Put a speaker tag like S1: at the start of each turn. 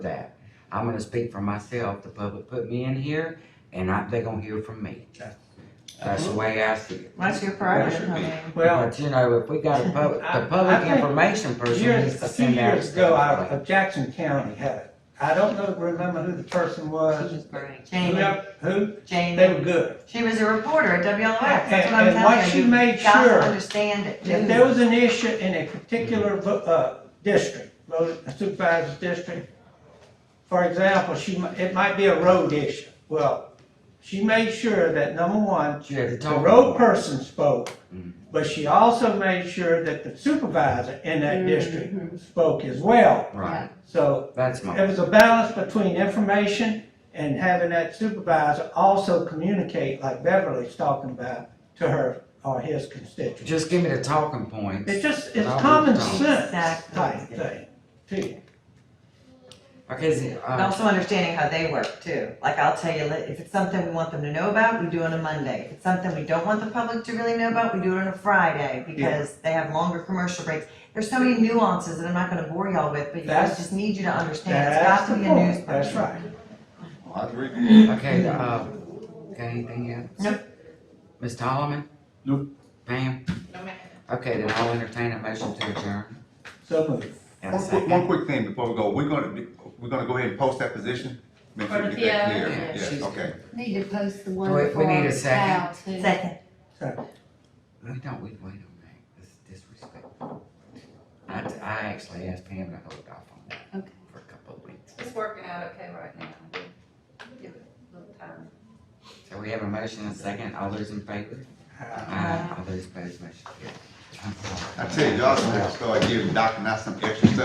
S1: that. I'm gonna speak for myself, the public put me in here, and I, they gonna hear from me.
S2: Okay.
S1: That's the way I see it.
S3: That's your prerogative,
S2: That
S3: I
S2: should
S3: mean.
S2: Well,
S1: But you know, if we got a public,
S2: I- I
S1: the public
S2: think
S1: information person needs to
S2: years, a few
S1: send out.
S2: years ago,
S1: stuff.
S2: out of Jackson County had it. I don't know, remember who the person
S3: She
S2: was.
S3: was great. Jamie,
S2: Whoever- Who? They
S3: Jamie,
S2: were good.
S3: she was a reporter at WLX, that's
S2: And-
S3: what I'm
S2: and what
S3: telling
S2: she
S3: you,
S2: made
S3: you gotta
S2: sure
S3: understand it.
S2: If there was an issue in a particular, vo- uh, district, road supervisor's district, for example, she, mi- it might be a road issue. Well, she made sure that, number one,
S1: She had to
S2: the
S1: talk.
S2: road person spoke,
S1: Mhm.
S2: but she also made sure that the supervisor in that district spoke as well.
S1: Right,
S2: So
S1: that's my.
S2: it was a balance between information and having that supervisor also communicate, like Beverly's talking about, to her or his constituents.
S1: Just give me the talking points.
S2: It's just, it's
S1: Robert
S2: common
S1: Downey.
S2: sense
S3: Exactly.
S2: type thing, too.
S1: Okay, so,
S3: And
S1: uh,
S3: also understanding how they work too, like I'll tell you, li- if it's something we want them to know about, we do it on a Monday. If it's something we don't want the public to really know about, we do it on a Friday, because they have longer commercial breaks. There's so many nuances that I'm not gonna bore y'all with, but you guys
S2: That's-
S3: just need you to understand, it's
S2: That's
S3: got to
S2: the
S3: be a news.
S2: point, that's right.
S4: I agree.
S1: okay, uh, got anything else?
S3: Nope.
S1: Ms. Tolman?
S4: Nope.
S1: Pam? Okay, then I'll entertain a motion to adjourn.
S2: So moved.
S1: And a
S4: One quick,
S1: second.
S4: one quick thing before we go, we're gonna, we're gonna go ahead and post that position? Make sure
S5: For
S4: we
S5: the
S4: get that
S5: PO?
S4: clear.
S5: Yeah.
S4: Yes,
S1: She's-
S4: okay.
S6: Need to post the one
S1: Do
S6: for
S1: it. We need a
S6: Val
S1: second.
S6: too.
S3: Second,
S1: We don't, we wait on that, this is disrespectful. I, I actually asked Pam to hold off on that
S6: Okay.
S1: for a couple of weeks.
S5: It's working out okay right now. Give it a little time.
S1: So we have a motion and a second, all those in favor?
S2: Uh,
S1: Aye. All those opposed, motion carries. I'm sorry.
S4: I tell you, y'all gonna have to start giving Dr. Knox some extra stuff